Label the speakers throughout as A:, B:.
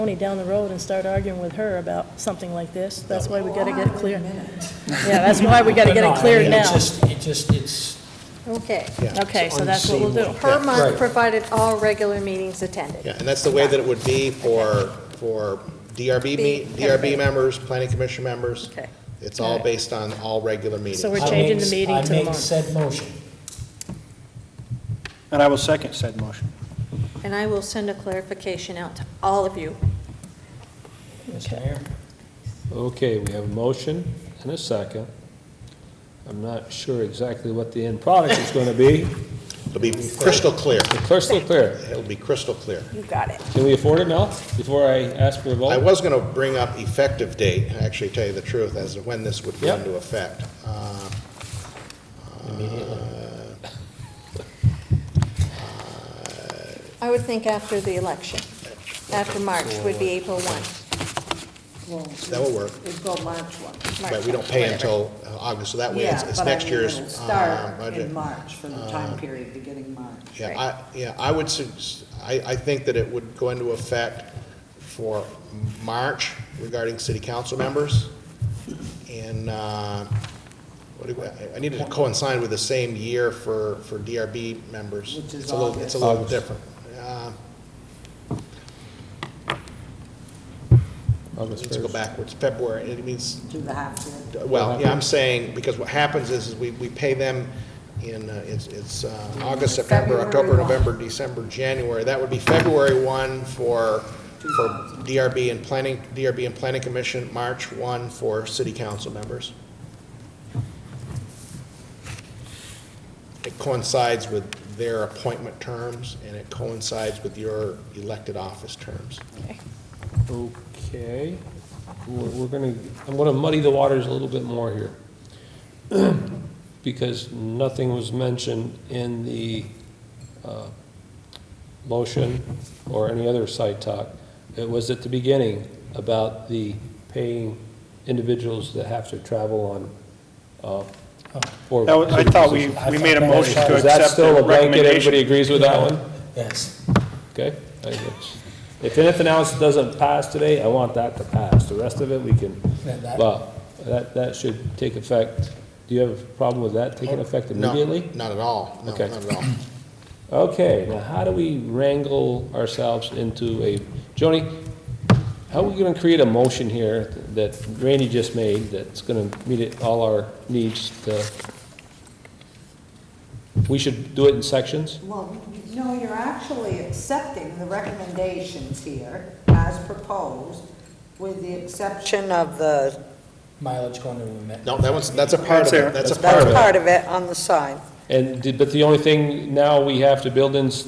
A: Tony down the road and start arguing with her about something like this. That's why we gotta get it clear.
B: minute.
A: Yeah, that's why we gotta get it
C: But no, I
A: cleared
C: mean, it
A: now.
C: just- It just, it's,
D: Okay.
A: Okay, so that's what we'll do.
D: Per month,
C: Right.
D: provided all regular meetings attended.
E: Yeah, and that's the way that it would be for, for DRB,
D: Be-
E: me- DRB members, planning commission members.
D: Okay.
E: It's all based on all regular meetings.
A: So we're
C: I
A: changing
C: make-
A: the meeting to
C: I make
A: tomorrow.
C: said motion.
F: And I will second said motion.
D: And I will send a clarification out to all of you.
C: Mr. Mayor?
G: Okay, we have a motion and a second. I'm not sure exactly what the end product is going to be.
E: It'll be crystal clear.
G: Crystal clear.
E: It'll be crystal clear.
D: You got it.
G: Can we afford it now, before I ask for a vote?
E: I was going to bring up effective date, and actually tell you the truth, as to when this would go
G: Yep.
E: into effect. Uh,
G: Immediately.
D: I would think after the election, after March would be April 1.
E: That will work.
B: It'd go March 1.
E: But we don't pay
D: whatever.
E: until uh, August, so that way it's
B: Yeah,
E: it's
B: but I
E: next
B: mean, it'll
E: year's uh,
B: start
E: budget. Uh,
B: in March, from the time period beginning March.
E: Yeah, I, yeah, I would, sus- I, I think that it would go into effect for March regarding city council members. And, uh, what do, I- I needed to coincide with the same year for, for DRB members.
B: Which is
E: It's a little- It's a little different. Uh,
G: August
E: Let's go
G: 1st.
E: backwards, February, it means,
B: Do the half year.
E: well, yeah, I'm saying, because what happens is, is we, we pay them in, uh, it's, it's uh, August, September,
B: February
E: October,
B: one.
E: November, December, January. That would be February 1 for, for DRB and Planning, DRB and Planning Commission, March 1 for city council members. It coincides with their appointment terms, and it coincides with your elected office terms.
G: Okay, we're, we're gonna, I'm gonna muddy the waters a little bit more here. Because nothing was mentioned in the, uh, motion or any other side talk. It was at the beginning about the paying individuals that have to travel on, uh, or.
F: That was- I thought we, we made a motion to
G: Is that
F: accept
G: still
F: the
G: a blanket, everybody
F: recommendation.
G: agrees with that one?
C: Yes.
G: Okay? I- If anything else doesn't pass today, I want that to pass. The rest of it, we can,
C: Yeah, that-
G: well, that, that should take effect. Do you have a problem with that
C: Oh,
G: taking effect
E: No,
G: immediately?
E: Not at all, no, not
G: Okay.
E: at all.
G: Okay, now how do we wrangle ourselves into a, Joni, how are we gonna create a motion here that Randy just made that's gonna meet it- all our needs to, we should do it in sections?
B: Well, no, you're actually accepting the recommendations here as proposed, with the exception of the,
C: Mileage going to remit.
E: No, that one's, that's a part of it, that's a part of
B: that's
E: it.
B: part of it on the side.
G: And, the- but the only thing now we have to build in s-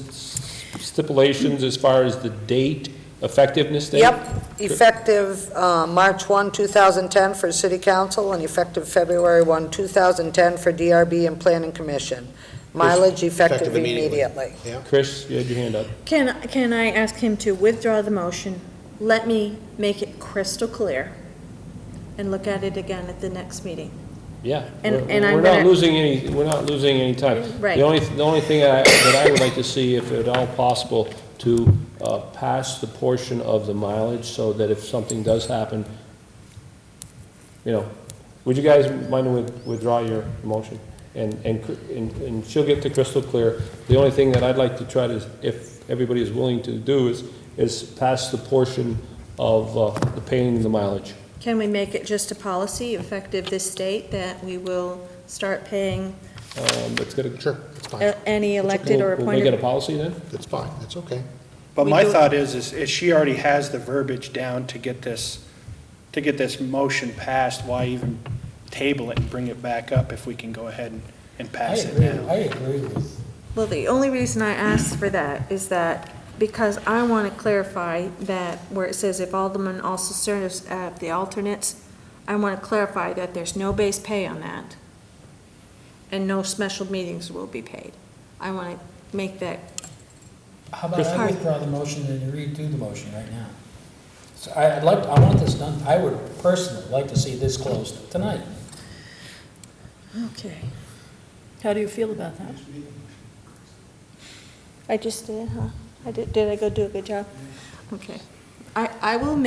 G: stipulations as far as the date, effectiveness date?
H: Yep, effective uh, March 1, 2010 for City Council, and effective February 1, 2010 for DRB and Planning Commission. Mileage effective
E: effective immediately.
H: immediately.
E: Yeah.
G: Chris, you had your hand up.
I: Can, can I ask him to withdraw the motion? Let me make it crystal clear and look at it again at the next meeting.
G: Yeah.
I: And-
G: We're-
I: and I'm
G: We're not
I: gonna-
G: losing any, we're not losing any time.
I: Right.
G: The only, the only thing I- that I would like to see, if at all possible, to uh, pass the portion of the mileage so that if something does happen, you know, would you guys mind to with- withdraw your motion? And, and, cr- and and she'll get to crystal clear. The only thing that I'd like to try to, if everybody is willing to do is, is pass the portion of uh, the paying the mileage.
I: Can we make it just a policy effective this date that we will start paying
G: Um, It's gonna.
E: Sure, it's fine,
I: uh, any elected or
G: We'll- We'll make it a
I: appointed?
G: policy then?
E: it's fine, it's okay.
F: But
I: We
F: my
I: do-
F: thought is, is if she already has the verbiage down to get this, to get this motion passed, why even table it and bring it back up if we can go ahead and, and
C: I
F: pass it
C: agree,
F: now?
C: I agree with,
I: Well, the only reason I asked for that is that, because I want to clarify that where it says if alderman also serves as the alternates, I want to clarify that there's no base pay on that, and no special meetings will be paid. I want to make that
C: how about I
I: Chris.
C: withdraw the motion and redo the motion right now? So I, I'd like, I want this done, I would personally like to see this closed tonight.
A: Okay.
B: How do you feel about that?
I: I just did, huh? I did, did I go do a good job? Okay. I, I will